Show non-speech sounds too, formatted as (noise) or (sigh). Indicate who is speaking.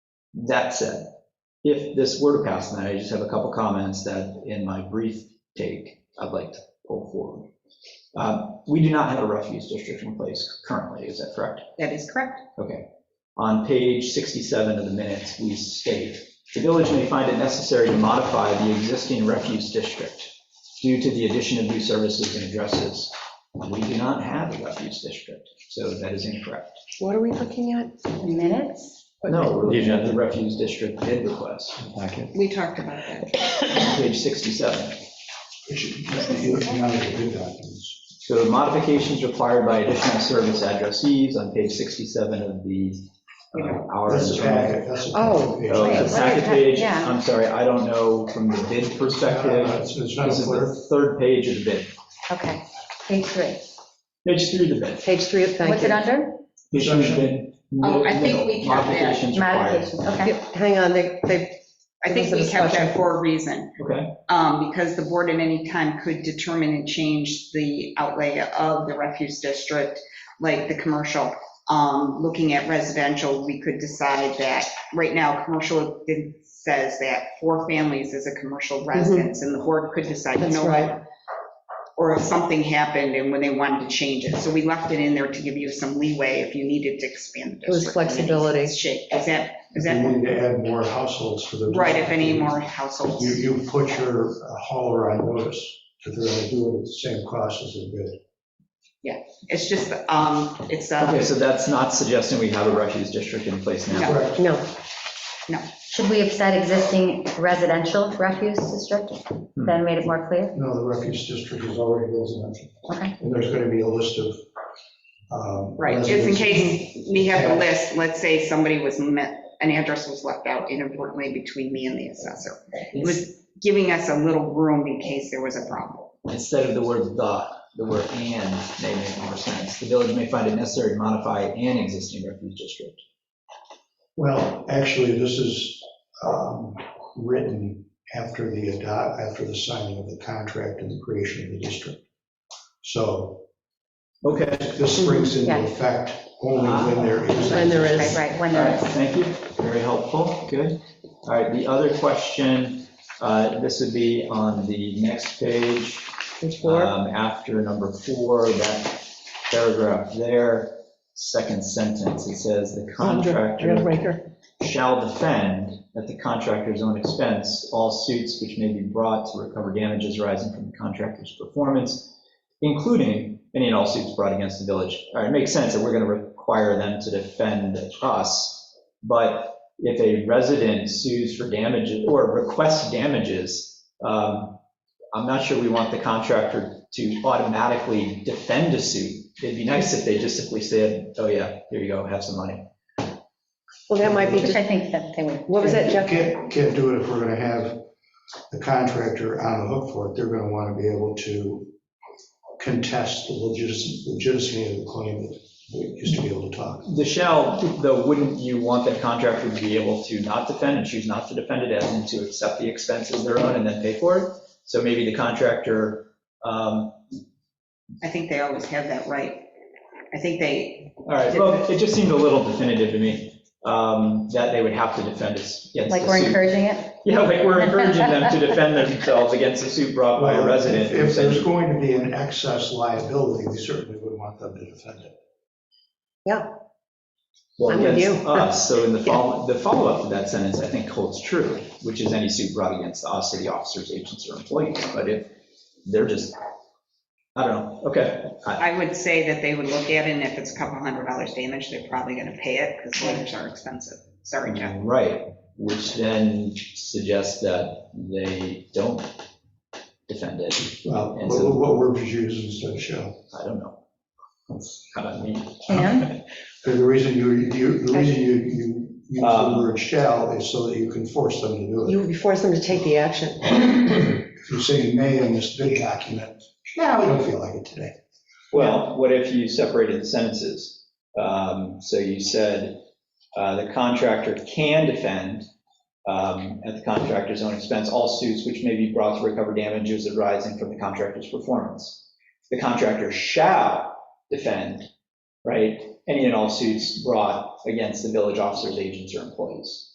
Speaker 1: That said, if this were to pass tonight, I just have a couple comments that in my brief take, I'd like to pull forward. Uh, We do not have a refuse district in place currently, is that correct?
Speaker 2: That is correct.
Speaker 1: Okay. On page 67 of the minutes, we state, "The village may find it necessary to modify the existing refuse district due to the addition of new services and addresses." We do not have a refuse district, so that is incorrect.
Speaker 3: What are we looking at?
Speaker 2: Minutes?
Speaker 1: No, we're looking at the refuse district bid request,
Speaker 4: packet.
Speaker 2: We talked about that.
Speaker 1: page 67.
Speaker 5: It should be looking out of the bid documents.
Speaker 1: So modifications required by additional service addressees on page 67 of the, uh, our.
Speaker 5: That's a packet, that's a.
Speaker 3: Oh,
Speaker 5: packet.
Speaker 1: Oh,
Speaker 3: wait,
Speaker 1: it's a second
Speaker 3: what is that?
Speaker 1: page,
Speaker 3: Yeah.
Speaker 1: I'm sorry, I don't know from the bid perspective.
Speaker 5: Uh, It's it's not a
Speaker 1: This is
Speaker 5: clerk.
Speaker 1: the third page of the bid,
Speaker 3: Okay, page three.
Speaker 1: page three of the bid.
Speaker 3: Page three, of- thank
Speaker 2: What's it
Speaker 3: you.
Speaker 2: under?
Speaker 1: Page three of the bid.
Speaker 2: Oh, I
Speaker 1: No,
Speaker 2: think we
Speaker 1: no,
Speaker 2: count that.
Speaker 1: Modifications required.
Speaker 2: Modifications, okay.
Speaker 3: Yep, Hang on, they, they,
Speaker 2: I think we kept that for a reason,
Speaker 1: Okay,
Speaker 2: um, because the board at any time could determine and change the outlay of the refuse district, like the commercial. Um, Looking at residential, we could decide that, right now, commercial it says that four families is a commercial residence, and the board could decide, you
Speaker 3: Mm-hmm. That's
Speaker 2: know
Speaker 3: right.
Speaker 2: what? Or if something happened and when they wanted to change it. So we left it in there to give you some leeway if you needed to expand the district.
Speaker 3: It was flexibility.
Speaker 2: Shape, is that, is
Speaker 5: You
Speaker 2: that?
Speaker 5: need to add more households to the.
Speaker 2: Right, if any
Speaker 5: district.
Speaker 2: more households.
Speaker 5: You, you put your uh, hauler on notice, if they're going to do it at the same cost as a bid.
Speaker 2: It's just, um, it's,
Speaker 1: okay,
Speaker 2: uh,
Speaker 1: so that's not suggesting we have a refuse district in place now.
Speaker 2: No.
Speaker 5: Correct.
Speaker 3: no,
Speaker 6: Should we have said existing residential refuse district?
Speaker 3: Hmm.
Speaker 6: That made it more clear?
Speaker 5: No, the refuse district is already residential.
Speaker 6: Okay.
Speaker 5: And there's going to be a list of. um,
Speaker 2: right, just in
Speaker 5: residents.
Speaker 2: case we have the list, let's say somebody was, met, an address was left out inadvertently between me and the assessor. It was giving us a little room in case there was a problem.
Speaker 1: Instead of the word "the," the word "and" may make more sense. The village may find it necessary to modify an existing refuge district.
Speaker 5: Well, actually, this is um, written after the adopt, after the signing of the contract and the creation of the district. So
Speaker 1: Okay,
Speaker 5: this springs into
Speaker 6: Yeah.
Speaker 5: effect only when there is.
Speaker 3: when there
Speaker 6: Right,
Speaker 3: is.
Speaker 6: right, when
Speaker 1: all
Speaker 6: there
Speaker 1: right,
Speaker 6: is.
Speaker 1: thank you, very helpful, good. All right, the other question, uh, this would be on the next page.
Speaker 3: Page four.
Speaker 1: um, After number four, that paragraph there, second sentence, it says, "The contractor."
Speaker 3: Real breaker.
Speaker 1: shall defend at the contractor's own expense all suits which may be brought to recover damages arising from the contractor's performance, including any and all suits brought against the village. All right, it makes sense that we're going to require them to defend us, but if a resident sues for damages or requests damages, um, I'm not sure we want the contractor to automatically defend a suit. It'd be nice if they just simply said, oh yeah, here you go, have some money.
Speaker 3: Well, that might be,
Speaker 6: Which
Speaker 3: just
Speaker 6: I think that they would.
Speaker 3: what was that, Jeff?
Speaker 5: Can't, can't do it if we're going to have the contractor on the hook for it. They're going to want to be able to contest the legitimacy legitimacy of the claim that we used to be able to talk.
Speaker 1: The shall, though, wouldn't you want the contractor to be able to not defend and choose not to defend it as in to accept the expense as their own and then pay for it? So maybe the contractor, um,
Speaker 2: I think they always have that right. I think they,
Speaker 1: all right, well, it just seemed a little definitive to me um, that they would have to defend us against
Speaker 6: Like
Speaker 1: the
Speaker 6: we're
Speaker 1: suit.
Speaker 6: encouraging it?
Speaker 1: Yeah, like we're encouraging them to defend themselves against a suit brought by a resident.
Speaker 5: If there's going to be an excess liability, we certainly would want them to defend it.
Speaker 1: Well,
Speaker 3: I'm with
Speaker 1: against
Speaker 3: you.
Speaker 1: us, so
Speaker 3: (laughs)
Speaker 1: in the follow, the follow-up to that sentence, I think holds true, which is any suit brought against us or the officers, agents, or employees, but if they're just, I don't know, okay. I-
Speaker 2: I would say that they would look at it, and if it's a couple hundred dollars damage, they're probably gonna pay it, because lawyers are expensive. Sorry, Jeff.
Speaker 1: Right, which then suggests that they don't defend it,
Speaker 5: Well,
Speaker 1: And
Speaker 5: what-
Speaker 1: so-
Speaker 5: what word did you use instead of shall?
Speaker 1: I don't know. That's kind of me.
Speaker 6: And?
Speaker 5: The reason you, you, the reason you, you use the
Speaker 1: Um,
Speaker 5: word shall is so that you can force them to do it.
Speaker 3: You would force them to take the action.
Speaker 5: If you say may in this bid document, no, we don't feel like it today.
Speaker 1: Well, what if you separated the sentences? Um, So you said, uh, the contractor can defend um, at the contractor's own expense all suits which may be brought to recover damages arising from the contractor's performance. The contractor shall defend, right, any and all suits brought against the village officers, agents, or employees.